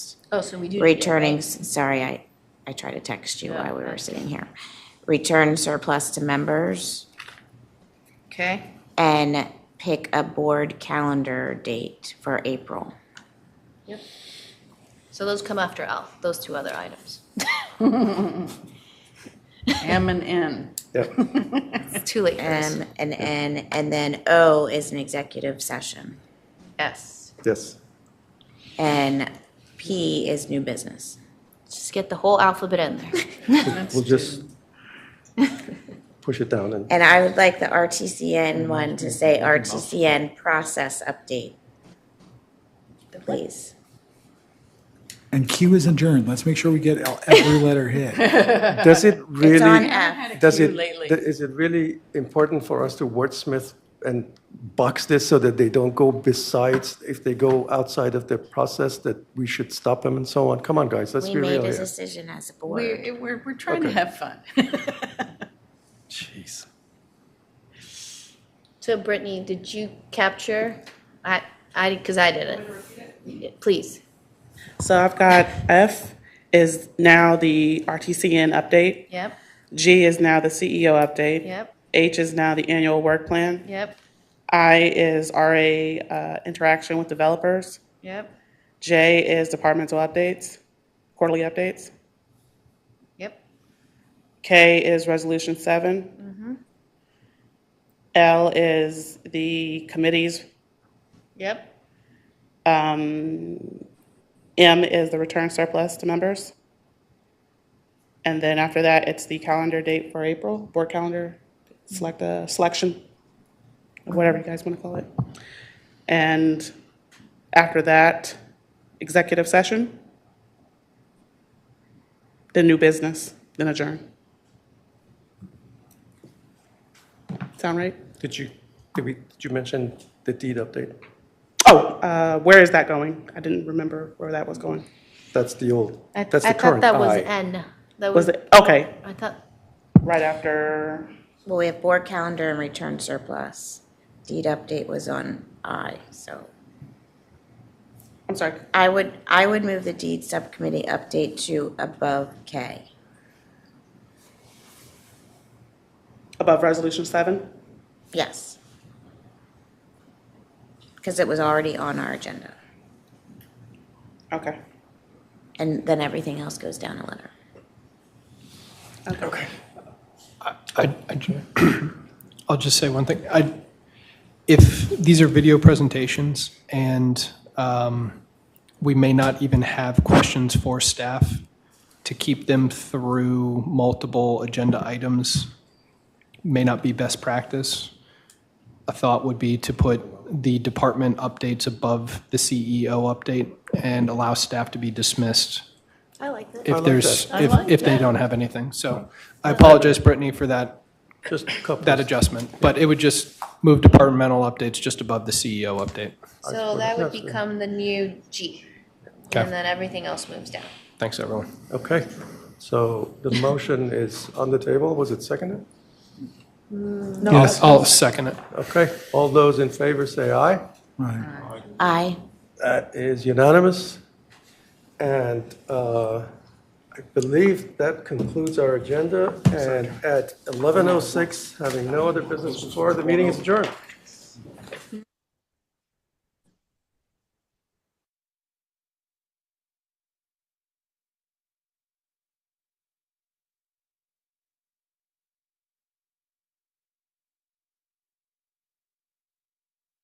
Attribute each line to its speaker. Speaker 1: Oh, so we do.
Speaker 2: returning, s- sorry, I, I tried to text you
Speaker 1: Oh,
Speaker 2: while we were sitting here. Return surplus to members
Speaker 1: Okay,
Speaker 2: and pick a board calendar date for April.
Speaker 1: so those come after L, those two other items.
Speaker 3: M and N.
Speaker 4: Yep.
Speaker 1: It's too late for this.
Speaker 2: M and N, and then O is an executive session.
Speaker 1: S.
Speaker 4: Yes.
Speaker 2: And P is new business.
Speaker 1: Just get the whole alphabet in there.
Speaker 4: We'll just push it down and,
Speaker 2: And I would like the
Speaker 1: Mm-hmm.
Speaker 2: RTCN one to say RTCN process update. Please.
Speaker 5: And Q is adjourned. Let's make sure we get el- every letter hit.
Speaker 4: does it
Speaker 2: It's on
Speaker 4: really,
Speaker 2: F.
Speaker 4: does
Speaker 3: Q
Speaker 4: it,
Speaker 3: lately.
Speaker 4: th- is it really important for us to wordsmith and box this so that they don't go besides, if they go outside of the process, that we should stop them and so on? Come on, guys, let's
Speaker 2: We
Speaker 4: be
Speaker 2: made
Speaker 4: real
Speaker 2: a
Speaker 4: here.
Speaker 2: decision as a board.
Speaker 3: We're, we're, we're trying to
Speaker 4: Okay.
Speaker 3: have fun.
Speaker 4: Jeez.
Speaker 1: So Brittany, did you capture? I, I, because I didn't. Please.
Speaker 6: So I've got F is now the RTCN update.
Speaker 1: Yep,
Speaker 6: G is now the CEO update.
Speaker 1: yep,
Speaker 6: H is now the annual work plan.
Speaker 1: yep,
Speaker 6: I is RA uh, interaction with developers.
Speaker 1: yep,
Speaker 6: J is departmental updates, quarterly updates.
Speaker 1: yep,
Speaker 6: K is resolution seven. L is the committees.
Speaker 1: yep,
Speaker 6: Um, M is the return surplus to members. And then after that, it's the calendar date for April, board calendar, select a selection, whatever you guys want to call it. And after that, executive session, then new business, then adjourn. Sound right?
Speaker 4: Did you, did we, did you mention the deed update?
Speaker 6: Oh, uh, where is that going? I didn't remember where that was going.
Speaker 4: That's the old,
Speaker 1: I-
Speaker 4: that's the current.
Speaker 1: I thought that was
Speaker 4: I.
Speaker 1: N. That
Speaker 6: Was
Speaker 1: was,
Speaker 6: it, okay,
Speaker 1: I thought,
Speaker 6: right after
Speaker 2: Well, we have board calendar and return surplus. Deed update was on I, so.
Speaker 6: I'm sorry.
Speaker 2: I would, I would move the deed subcommittee update to above K.
Speaker 6: Above resolution seven?
Speaker 2: Yes. Because it was already on our agenda.
Speaker 6: Okay.
Speaker 2: And then everything else goes down a letter.
Speaker 6: Okay.
Speaker 7: I, I ju- I'll just say one thing. I, if these are video presentations and um, we may not even have questions for staff to keep them through multiple agenda items, may not be best practice. A thought would be to put the department updates above the CEO update and allow staff to be dismissed
Speaker 1: I like that.
Speaker 7: if there's, if, if they don't have anything. So I apologize, Brittany, for that,
Speaker 4: Just a couple.
Speaker 7: that adjustment. But it would just move departmental updates just above the CEO update.
Speaker 1: So that would become the new G.
Speaker 7: Okay.
Speaker 1: And then everything else moves down.
Speaker 7: Thanks, everyone.
Speaker 4: Okay, so the motion is on the table, was it seconded?
Speaker 7: Yes, I'll second it.
Speaker 4: Okay, all those in favor say aye.
Speaker 5: Right.
Speaker 2: I,
Speaker 4: That is unanimous. And uh, I believe that concludes our oh agenda. And at 11:06, having no other business before, the meeting is adjourned.